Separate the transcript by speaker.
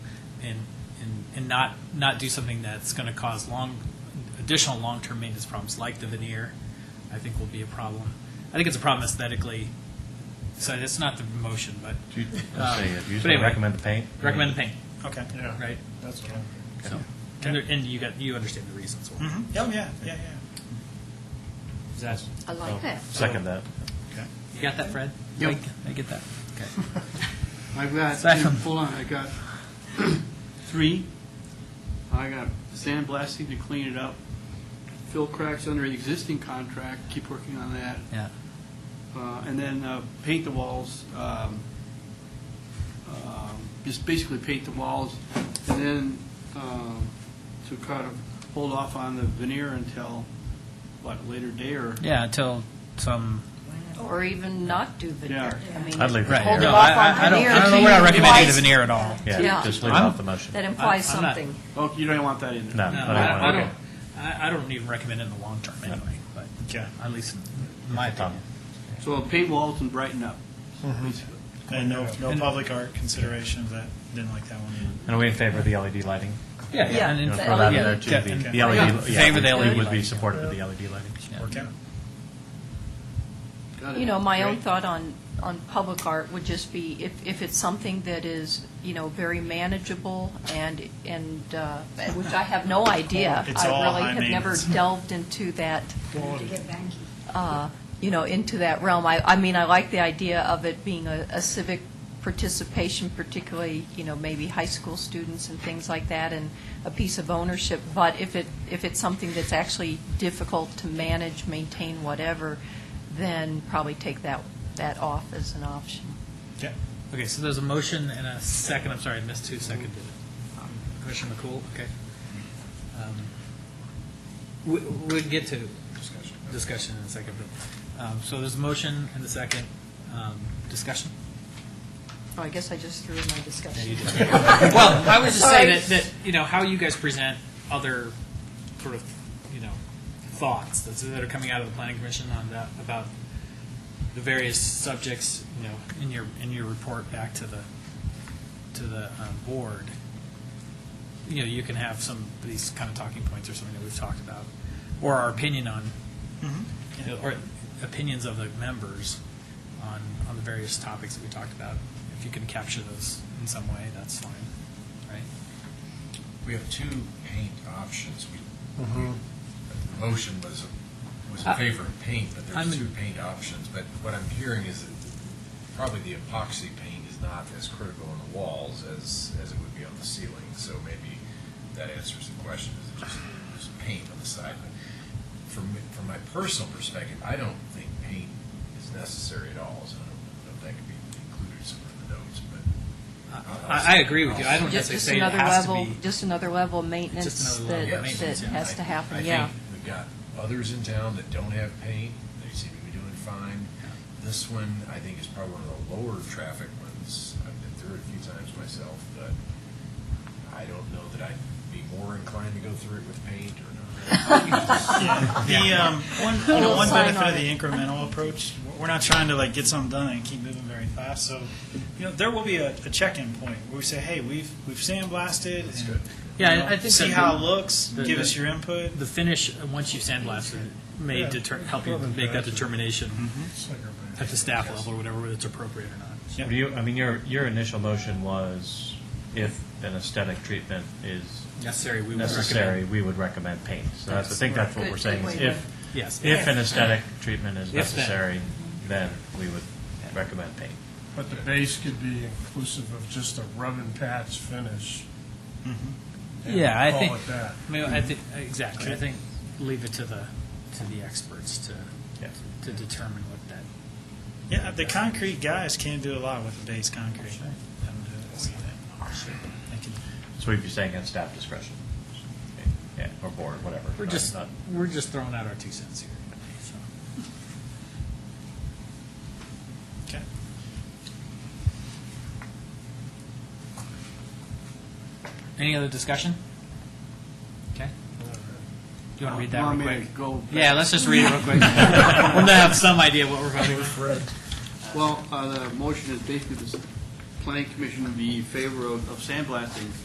Speaker 1: and not, not do something that's going to cause long, additional long-term maintenance problems like the veneer, I think will be a problem. I think it's a problem aesthetically, so that's not the motion, but
Speaker 2: Do you,
Speaker 1: Um,
Speaker 2: let's see, if you
Speaker 1: but
Speaker 2: just
Speaker 1: anyway.
Speaker 2: recommend the paint?
Speaker 1: recommend the paint,
Speaker 3: Okay.
Speaker 4: Yeah.
Speaker 1: right?
Speaker 4: That's what I'm.
Speaker 1: So, and there- and you got, you understand the reasons why.
Speaker 5: Mm-hmm.
Speaker 3: Oh, yeah, yeah, yeah.
Speaker 1: Is that-
Speaker 5: I
Speaker 2: Oh,
Speaker 5: like that.
Speaker 2: Second that.
Speaker 3: Okay.
Speaker 1: You got that, Fred?
Speaker 6: Yep.
Speaker 1: I I get that.
Speaker 6: I've got,
Speaker 1: Second.
Speaker 6: hold on, I got three. I got sandblasting to clean it up, fill cracks under the existing contract, keep working on that,
Speaker 1: Yeah.
Speaker 6: uh, and then uh, paint the walls, um, um, just basically paint the walls, and then um, to kind of hold off on the veneer until, what, a later day or?
Speaker 1: Yeah, until some,
Speaker 5: Or even not do veneer.
Speaker 6: Yeah.
Speaker 5: I mean,
Speaker 2: I'd leave it
Speaker 1: right.
Speaker 2: there.
Speaker 5: Hold it
Speaker 1: No,
Speaker 5: off
Speaker 1: I-
Speaker 5: on
Speaker 1: I- I don't-
Speaker 5: veneer
Speaker 1: I don't know
Speaker 5: to
Speaker 1: what I
Speaker 5: you
Speaker 1: recommended the
Speaker 5: twice.
Speaker 1: veneer at all.
Speaker 5: Yeah.
Speaker 2: Yeah, just leave it
Speaker 1: I'm-
Speaker 2: off the motion.
Speaker 5: That implies
Speaker 1: I'm not-
Speaker 5: something.
Speaker 6: Oh, you don't want that in there?
Speaker 2: No, I
Speaker 1: No,
Speaker 2: don't
Speaker 1: I I
Speaker 2: want it.
Speaker 1: don't, I I don't even recommend it in the long term anyway, but
Speaker 3: Okay.
Speaker 1: at least in my
Speaker 2: Tom.
Speaker 1: opinion.
Speaker 6: So paint walls and brighten up, basically.
Speaker 3: And no, no
Speaker 1: And-
Speaker 3: public art considerations. That didn't like that one.
Speaker 2: And are we in favor of the LED lighting?
Speaker 1: Yeah,
Speaker 5: yeah, and
Speaker 2: You know,
Speaker 5: The E
Speaker 2: throw that in
Speaker 5: LED.
Speaker 2: there too, the-
Speaker 3: Yeah.
Speaker 2: The E LED,
Speaker 1: Okay.
Speaker 2: yeah.
Speaker 1: Favor the
Speaker 2: we- we
Speaker 1: LED
Speaker 2: Would be
Speaker 1: lighting.
Speaker 2: supportive of the LED lighting.
Speaker 3: Okay.
Speaker 6: Got it.
Speaker 5: You know, my own
Speaker 3: Great.
Speaker 5: thought on, on public art would just be if, if it's something that is, you know, very manageable and, and, uh, which I have no idea.
Speaker 3: It's all high
Speaker 5: I really have never
Speaker 3: maintenance.
Speaker 5: delved into that,
Speaker 7: to get banky.
Speaker 5: uh, you know, into that realm. I, I mean, I like the idea of it being a a civic participation, particularly, you know, maybe high school students and things like that, and a piece of ownership. But if it, if it's something that's actually difficult to manage, maintain, whatever, then probably take that, that off as an option.
Speaker 3: Okay.
Speaker 1: Okay, so there's a motion and a second, I'm sorry, I missed who seconded it. Commissioner McCool, okay. Um, We, we'll get to discussion in a second, but, um, so there's a motion and a second, um, discussion?
Speaker 5: Oh, I guess I just threw in my discussion.
Speaker 1: Well, I was just saying
Speaker 5: Sorry.
Speaker 1: that, that, you know, how you guys present other sort of, you know, thoughts that's- that are coming out of the planning commission on that, about the various subjects, you know, in your, in your report back to the, to the um, board. You know, you can have some, of these kind of talking points or something that we've talked about, or our opinion on, you know, or opinions of the members on, on the various topics that we talked about. If you can capture those in some way, that's fine, right?
Speaker 8: We have two paint options. We, the motion was, was in
Speaker 1: Mm-hmm. I-
Speaker 8: favor of paint, but
Speaker 1: I'm
Speaker 8: there's
Speaker 1: in-
Speaker 8: two paint options. But what I'm hearing is that probably the epoxy paint is not as critical on the walls as, as it would be on the ceiling. So maybe that answers the question, is it just, just paint on the side? But From, from my personal perspective, I don't think paint is necessary at all, so I don't know if that could be included somewhere in the notes, but.
Speaker 1: I, I agree with you. I don't
Speaker 5: Just
Speaker 1: necessarily
Speaker 5: just
Speaker 1: say it
Speaker 5: another
Speaker 1: has to
Speaker 5: level,
Speaker 1: be.
Speaker 5: just another level of maintenance
Speaker 1: Just another level
Speaker 5: that,
Speaker 1: of
Speaker 5: that
Speaker 1: maintenance, yeah.
Speaker 5: has to
Speaker 8: I
Speaker 5: happen,
Speaker 8: think
Speaker 5: yeah.
Speaker 8: We've got others in town that don't have paint, they seem to be doing fine. This one, I think, is probably one of the lower traffic ones. I've been through it a few times myself, but I don't know that I'd be more inclined to go through it with paint or
Speaker 3: Yeah.
Speaker 8: not.
Speaker 3: The um, one, you know,
Speaker 5: Little
Speaker 3: one
Speaker 5: sign
Speaker 3: benefit
Speaker 5: on
Speaker 3: of the
Speaker 5: it.
Speaker 3: incremental approach, we're not trying to like get something done and keep moving very fast. So, you know, there will be a, a check-in point where we say, "Hey, we've we've sandblasted. and,
Speaker 8: good.
Speaker 1: Yeah,
Speaker 3: you know,
Speaker 1: I- I think
Speaker 3: see
Speaker 1: that
Speaker 3: how
Speaker 1: the-
Speaker 3: it looks.
Speaker 1: the-
Speaker 3: give
Speaker 1: the-
Speaker 3: us your input.
Speaker 1: The finish, uh, once you've sandblasted, it, may
Speaker 3: Yeah. Mm-hmm.
Speaker 1: deter, help you make that determination at the staff level or whatever, whether it's appropriate or not.
Speaker 3: Yep.
Speaker 2: Do you, I mean, your, your initial motion was if an aesthetic treatment is
Speaker 1: Necessary, we would
Speaker 2: necessary,
Speaker 1: recommend.
Speaker 2: we would recommend paint. So that's, I think that's what
Speaker 5: Good-
Speaker 2: we're saying,
Speaker 5: good
Speaker 2: is
Speaker 5: way to-
Speaker 2: if,
Speaker 1: Yes.
Speaker 2: if an aesthetic treatment is
Speaker 1: then.
Speaker 2: necessary, then we would recommend paint.
Speaker 4: But the base could be inclusive of just a rub and patch finish. and
Speaker 1: Yeah, I
Speaker 4: call
Speaker 1: think-
Speaker 4: it that.
Speaker 1: I mean, I think, exactly. I think leave it to the, to the experts to,
Speaker 2: Yeah.
Speaker 1: to determine what that
Speaker 3: Yeah, the concrete guys can do a lot with the base concrete. Let them do it. So they- they can-
Speaker 2: So we'd be saying at staff discretion. Okay. Yeah, or board, whatever.
Speaker 1: We're
Speaker 2: Not-
Speaker 1: just,
Speaker 2: not-
Speaker 1: we're just throwing out our two cents here. so.
Speaker 3: Okay.
Speaker 1: Any other discussion? Okay. Do you want to read that
Speaker 6: Want
Speaker 1: real
Speaker 6: me to
Speaker 1: quick?
Speaker 6: go back?
Speaker 1: Yeah, let's just read it real quick. We'll have some idea what we're voting on.
Speaker 6: Well, uh, the motion is basically the s- planning commission would be in favor of of sandblasting